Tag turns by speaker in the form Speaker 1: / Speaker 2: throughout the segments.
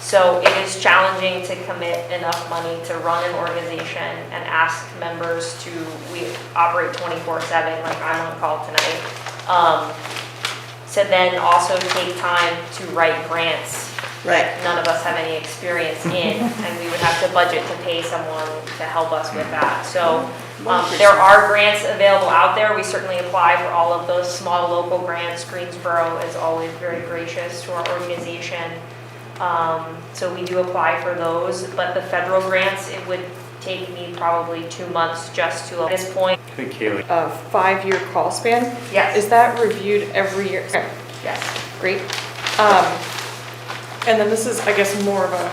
Speaker 1: So it is challenging to commit enough money to run an organization and ask members to, we operate 24/7, like I'm on call tonight. Um, To then also take time to write grants
Speaker 2: Right,
Speaker 1: none of us have any experience in, and we would have to budget to pay someone to help us with that. So um, there are grants available out there. We certainly apply for all of those small local grants. Greensboro is always very gracious to our organization. Um, So we do apply for those, but the federal grants, it would take me probably two months just to, at this point.
Speaker 3: I think Kaylee,
Speaker 4: a five-year call span.
Speaker 1: Yes.
Speaker 4: Is that reviewed every year? Okay,
Speaker 1: Yes.
Speaker 4: Great. Um, And then this is, I guess, more of a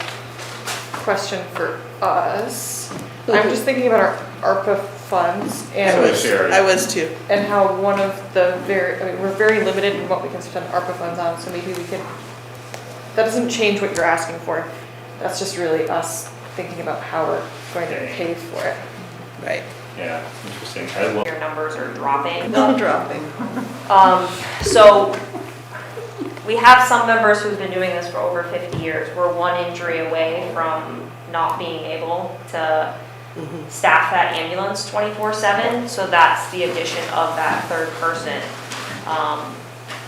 Speaker 4: question for us. I'm just thinking about our ARPA funds
Speaker 2: I
Speaker 3: So
Speaker 4: and,
Speaker 2: was,
Speaker 3: Sherry.
Speaker 2: I was too.
Speaker 4: and how one of the very, I mean, we're very limited in what we can spend ARPA funds on, so maybe we could, that doesn't change what you're asking for. That's just really us thinking about how we're going to pay for it.
Speaker 2: Right.
Speaker 3: yeah, interesting. I love,
Speaker 1: Your numbers are dropping.
Speaker 2: Not dropping.
Speaker 1: Um, so, we have some members who've been doing this for over fifty years. We're one injury away from not being able to staff that ambulance twenty-four seven, so that's the addition of that third person. Um,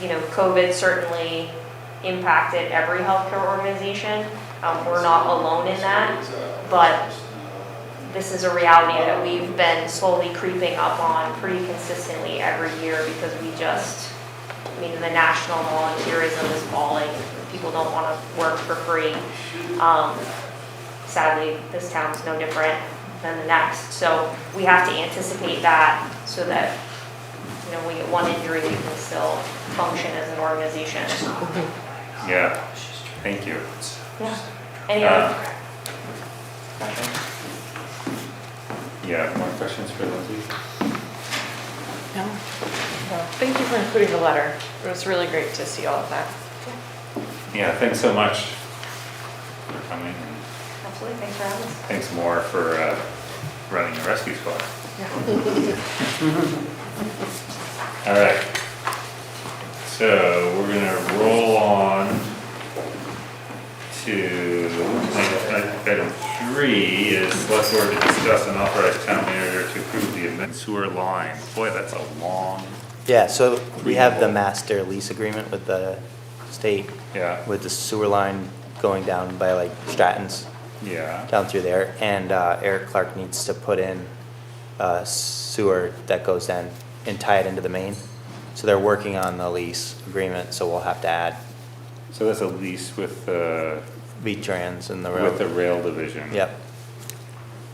Speaker 1: you know, COVID certainly impacted every healthcare organization. Um, we're not alone in that, but this is a reality that we've been slowly creeping up on pretty consistently every year because we just, I mean, the national volunteerism is falling. People don't want to work for free. Um, Sadly, this town's no different than the next. So we have to anticipate that so that, you know, we get one injury, we can still function as an organization.
Speaker 3: yeah, thank you.
Speaker 1: Yeah. Any other
Speaker 3: Yeah, more questions for Lindsay?
Speaker 2: No.
Speaker 4: Well, Thank you for including the letter. It was really great to see all of that.
Speaker 3: Yeah, thanks so much for coming, and
Speaker 1: Absolutely, thanks for having us.
Speaker 3: thanks more for uh, running the rescue squad. All right. So we're gonna roll on to, like, item three is select board to discuss and authorize town manager to approve the amendment sewer line. Boy, that's a long,
Speaker 5: Yeah, so we have the master lease agreement with the state,
Speaker 3: yeah,
Speaker 5: with the sewer line going down by like Stratton's,
Speaker 3: yeah,
Speaker 5: down through there, and uh, Eric Clark needs to put in uh, sewer that goes in and tie it into the main. So they're working on the lease agreement, so we'll have to add
Speaker 3: so that's a lease with, uh,
Speaker 5: V-Trans and the
Speaker 3: with the
Speaker 5: road.
Speaker 3: rail division.
Speaker 5: Yep,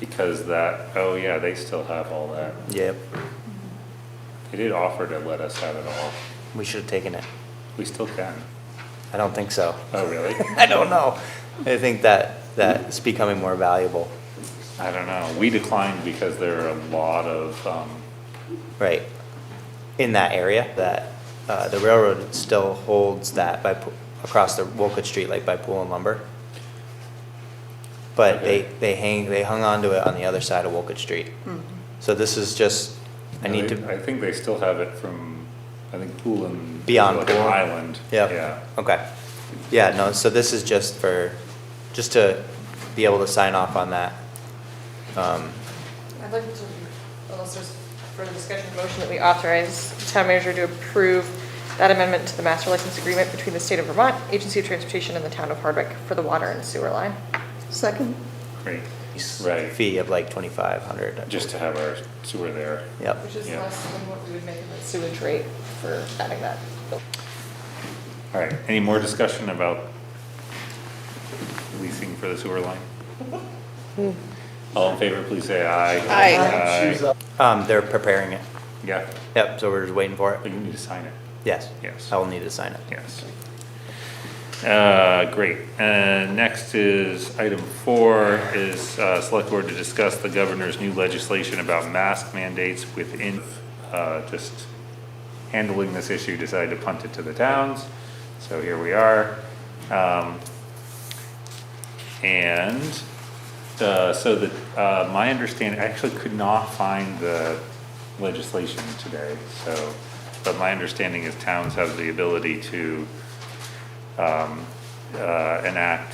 Speaker 3: Because that, oh yeah, they still have all that.
Speaker 5: yep,
Speaker 3: They did offer to let us have it all.
Speaker 5: we should have taken it.
Speaker 3: We still can.
Speaker 5: I don't think so.
Speaker 3: Oh, really?
Speaker 5: I don't know. I think that, that's becoming more valuable,
Speaker 3: I don't know. We declined because there are a lot of, um,
Speaker 5: right, in that area, that, uh, the railroad still holds that by, Poo- across the Wolcott Street, like by Pool and Lumber. But they,
Speaker 3: Okay.
Speaker 5: they hang, they hung on to it on the other side of Wolcott Street. So this is just, I need
Speaker 3: I
Speaker 5: to,
Speaker 3: think they still have it from, I think Pool and.
Speaker 5: Beyond
Speaker 3: like
Speaker 5: Pool.
Speaker 3: Island.
Speaker 5: yeah,
Speaker 3: Yeah.
Speaker 5: okay. Yeah, no, so this is just for, just to be able to sign off on that. Um,
Speaker 4: I'd like to, unless there's further discussion, motion that we authorize the town manager to approve that amendment to the master license agreement between the state of Vermont, Agency of Transportation, and the town of Hardwick for the water and sewer line.
Speaker 2: Second?
Speaker 3: Great.
Speaker 5: s-
Speaker 3: Right.
Speaker 5: Fee of like twenty-five hundred.
Speaker 3: Just to have our sewer there.
Speaker 5: Yep.
Speaker 4: Which is
Speaker 3: Yeah.
Speaker 4: less than what we would make in the sewage rate for adding that.
Speaker 3: All right. Any more discussion about leasing for the sewer line? All in favor, please say aye.
Speaker 2: Aye.
Speaker 3: Aye.
Speaker 5: Um, they're preparing it.
Speaker 3: Yeah,
Speaker 5: Yep, so we're just waiting for
Speaker 3: but
Speaker 5: it.
Speaker 3: you need to sign it.
Speaker 5: Yes.
Speaker 3: Yes.
Speaker 5: I will need to sign it.
Speaker 3: Yes. Uh, Great. Uh, Next is, item four is uh, select board to discuss the governor's new legislation about mask mandates within, uh, just handling this issue, decided to punt it to the towns. So here we are. Um, And uh, so the, uh, my understanding, I actually could not find the legislation today, so, but my understanding is towns have the ability to um, uh, enact